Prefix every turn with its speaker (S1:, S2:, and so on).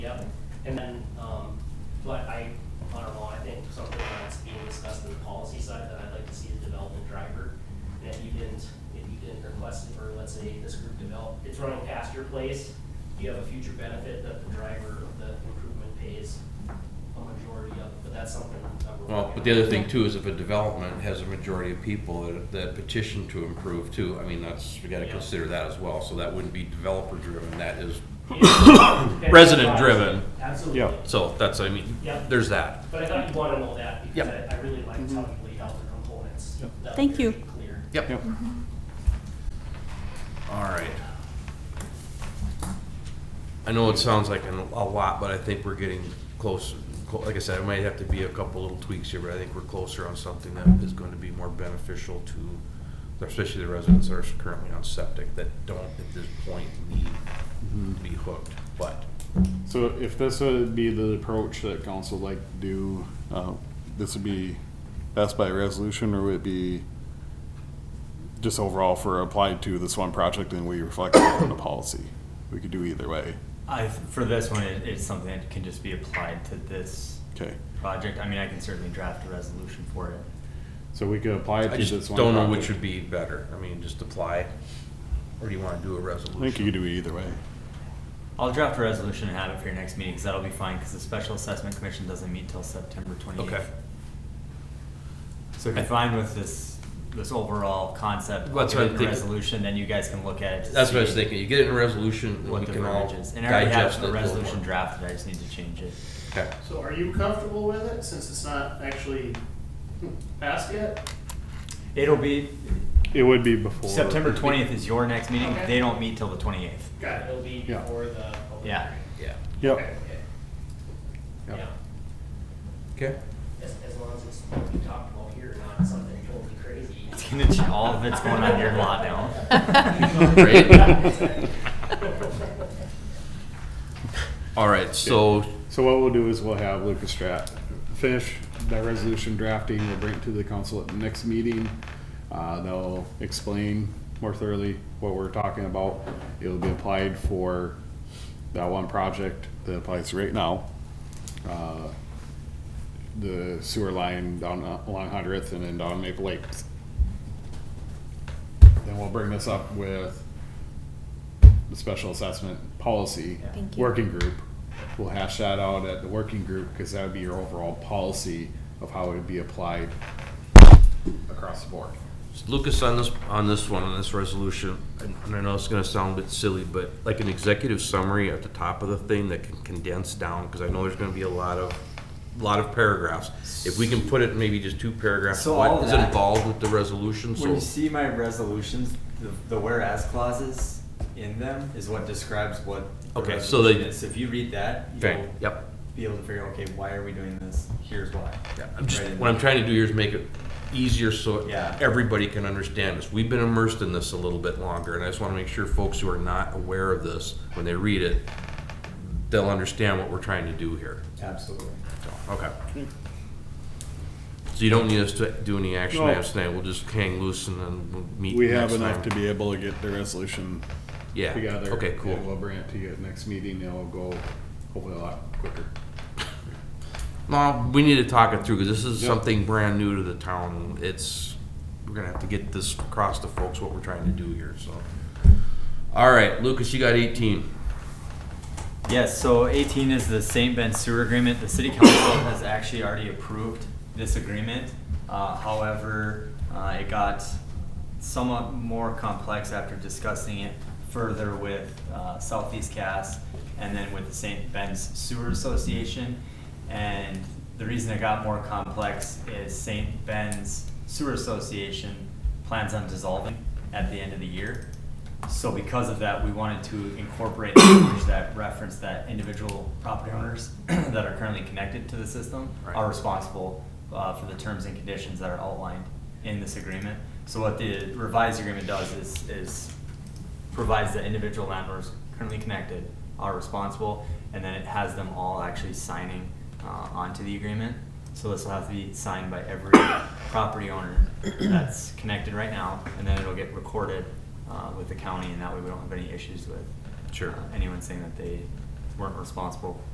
S1: And then, um, but I, I don't know, I think something that's being discussed in the policy side that I'd like to see is development driver. And if you didn't, if you didn't request it, or let's say this group developed, it's running past your place, you have a future benefit that the driver of the improvement pays a majority of, but that's something that we're.
S2: Well,
S1: working
S2: but the other
S1: on.
S2: thing too is if a development has a majority of people that- that petition to improve too, I mean, that's, we gotta
S1: Yeah.
S2: consider that as well. So that wouldn't be developer driven, that is,
S1: Yeah.
S2: Resident driven.
S1: Absolutely.
S2: so that's, I mean,
S1: Yeah.
S2: there's that.
S1: But I thought you'd wanna know that, because
S2: Yep.
S1: I, I really liked how you laid out the components. That was
S3: Thank you.
S1: very Clear.
S2: Yep. All right. I know it sounds like an- a lot, but I think we're getting close. Cl- Like I said, it might have to be a couple little tweaks here, but I think we're closer on something that is going to be more beneficial to, especially the residents that are currently on septic that don't at this point need to be hooked. But
S4: So if this would be the approach that council would like to do, uh, this would be passed by resolution or would it be just overall for applied to this one project and we reflect it on the policy? We could do either way.
S5: I, for this one, it, it's something that can just be applied to this
S4: Okay.
S5: project. I mean, I can certainly draft a resolution for it.
S4: So we could apply it
S2: I
S4: to this
S2: just
S4: one.
S2: don't know which
S4: project.
S2: would be better. I mean, just apply, or do you want to do a resolution?
S4: I think you could do it either way.
S5: I'll draft a resolution and have it for your next meeting, because that'll be fine, because the Special Assessment Commission doesn't meet till September twenty-eighth.
S2: Okay.
S5: So if you're fine with this, this overall concept, I'll
S2: That's
S5: give
S2: what
S5: it
S2: I'm
S5: in a
S2: thinking.
S5: resolution, then you guys can look at it. to
S2: That's what I was
S5: see
S2: thinking. You get it in a resolution, we
S5: What the
S2: can all
S5: verbiage is. And I already
S2: digest
S5: have
S2: it a
S5: a
S2: little
S5: resolution
S2: more.
S5: drafted, I just need to change it.
S2: Okay.
S6: So are you comfortable with it, since it's not actually passed yet?
S5: It'll be,
S4: It would be before.
S5: September twentieth is your next meeting,
S6: Okay.
S5: they don't meet till the twenty-eighth.
S6: Got it.
S1: It'll be
S4: Yeah.
S1: before the. public
S5: Yeah.
S1: hearing.
S2: Yeah.
S4: Yep.
S6: Okay.
S4: Yep.
S1: Yeah,
S2: Okay.
S1: as, as long as it's what we talked about here, not something totally crazy.
S5: It's gonna, ch- all of it's going on your lot now.
S2: Great.
S1: Great.
S2: All right. So
S4: So what we'll do is we'll have Lucas Strat finish that resolution drafting, we'll bring it to the council at the next meeting. Uh, they'll explain more thoroughly what we're talking about. It'll be applied for that one project that applies right now. Uh, The sewer line down uh, along Hundredth and then down Maple Lakes. Then we'll bring this up with the special assessment policy
S3: Thank you.
S4: working group. We'll hash that out at the working group, cause that would be your overall policy of how it would be applied across the board.
S2: Lucas, on this, on this one, on this resolution, and and I know it's gonna sound a bit silly, but like an executive summary at the top of the thing that can condense down, because I know there's gonna be a lot of, lot of paragraphs. If we can put it in maybe just two paragraphs,
S5: So all
S2: what is
S5: that-
S2: involved with the resolution,
S5: When you
S2: so.
S5: see my resolutions, the, the whereas clauses in them is what describes what the
S2: Okay, so they-
S5: resolution is. So if you read that,
S2: Okay,
S5: you'll
S2: yep.
S5: be able to figure, okay, why are we doing this? Here's why.
S2: Yeah, I'm just,
S5: Right in
S2: what I'm
S5: there.
S2: trying to do here is make it easier so
S5: Yeah.
S2: everybody can understand this. We've been immersed in this a little bit longer, and I just wanna make sure folks who are not aware of this, when they read it, they'll understand what we're trying to do here.
S5: Absolutely.
S2: So, okay. So you don't need us to do any action
S4: No.
S2: items tonight, we'll just hang loose and then we'll meet
S4: We have
S2: next
S4: enough to
S2: time.
S4: be able to get the resolution
S2: Yeah,
S4: together.
S2: okay,
S4: and We'll
S2: cool.
S4: bring it to you at next meeting, it'll go hopefully a lot quicker.
S2: No, we need to talk it through, cause this is
S4: Yep.
S2: something brand new to the town, it's, we're gonna have to get this across to folks what we're trying to do here, so. All right, Lucas, you got eighteen.
S5: Yes, so eighteen is the St. Ben sewer agreement. The city council has actually already approved this agreement. Uh, however, uh, it got somewhat more complex after discussing it further with, uh, Southeast Cass and then with the St. Ben's Sewer Association. And the reason it got more complex is St. Ben's Sewer Association plans on dissolving at the end of the year. So because of that, we wanted to incorporate language that reference that individual property owners that are currently connected to the system
S2: Right.
S5: are responsible uh, for the terms and conditions that are outlined in this agreement. So what the revised agreement does is, is provides that individual landlords currently connected are responsible, and then it has them all actually signing uh, onto the agreement. So this will have to be signed by every property owner that's connected right now, and then it'll get recorded uh, with the county, and that way we don't have any issues with
S2: Sure.
S5: uh, anyone saying that they weren't responsible